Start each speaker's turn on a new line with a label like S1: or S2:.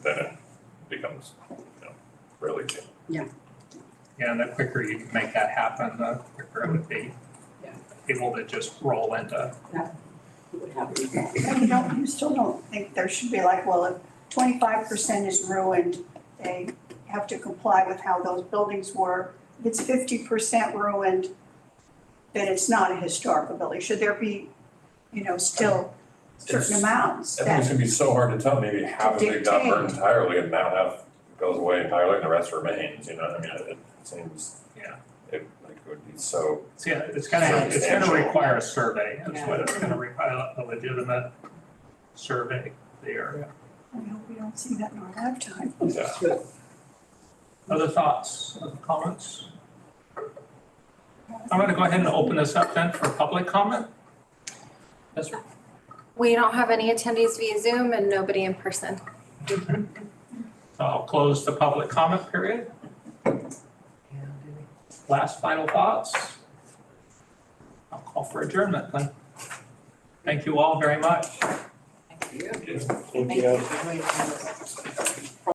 S1: Yeah.
S2: Yeah, and the quicker you can make that happen, the quicker it would be.
S1: Yeah.
S2: Able to just roll into,
S1: It would happen with that.
S3: And you don't, you still don't think there should be like, well, if twenty-five percent is ruined, they have to comply with how those buildings were. If it's fifty percent ruined, then it's not a historical building. Should there be, you know, still certain
S4: It's-
S3: amounts
S4: I think it's
S3: that,
S4: gonna be so hard to tell, maybe half of it got
S3: Dictate.
S4: burned entirely and now half goes away entirely and the rest remains, you know, I mean, it it seems.
S2: Yeah.
S4: It like would be so,
S2: it's gonna, it's gonna, it's gonna
S4: Substantial.
S2: require a survey, is
S1: Yeah.
S2: what it's gonna require, a legitimate survey there.
S3: I hope we don't see that in our lifetime.
S4: yeah,
S2: Other thoughts, other comments? I'm gonna go ahead and open this up then for public comment. Yes, sir.
S5: We don't have any attendees via Zoom and nobody in person.
S2: So I'll close the public comment period. Last final thoughts? I'll call for adjournment then. Thank you all very much.
S1: Thank you.
S4: Yes.
S1: Thank you. Great.